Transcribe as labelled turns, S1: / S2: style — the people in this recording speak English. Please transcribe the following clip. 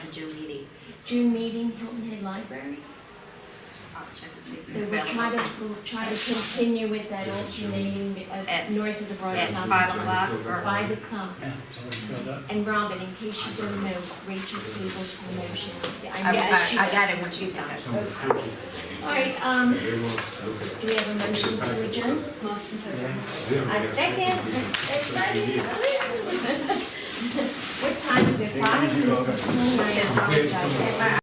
S1: June meeting.
S2: June meeting, Hilton Head Library.
S1: I'll check and see if it's
S2: So we'll try to,
S1: available.
S2: we'll try to continue with that alternating, uh,
S1: At-
S2: north of the Broad
S1: At
S2: South.
S1: five o'clock or?
S2: Five o'clock.
S3: Yeah, it's already filled up.
S2: And Robin, in case you don't know, Rachel tabled her motion.
S1: I-
S2: know she-
S1: I I got it, what you got.
S4: Some of the pictures
S2: All right, um,
S4: they want us to look at.
S2: do we have a motion to adjourn? Motion to adjourn. A second. Excited. What time is it? Five minutes to ten, I apologize.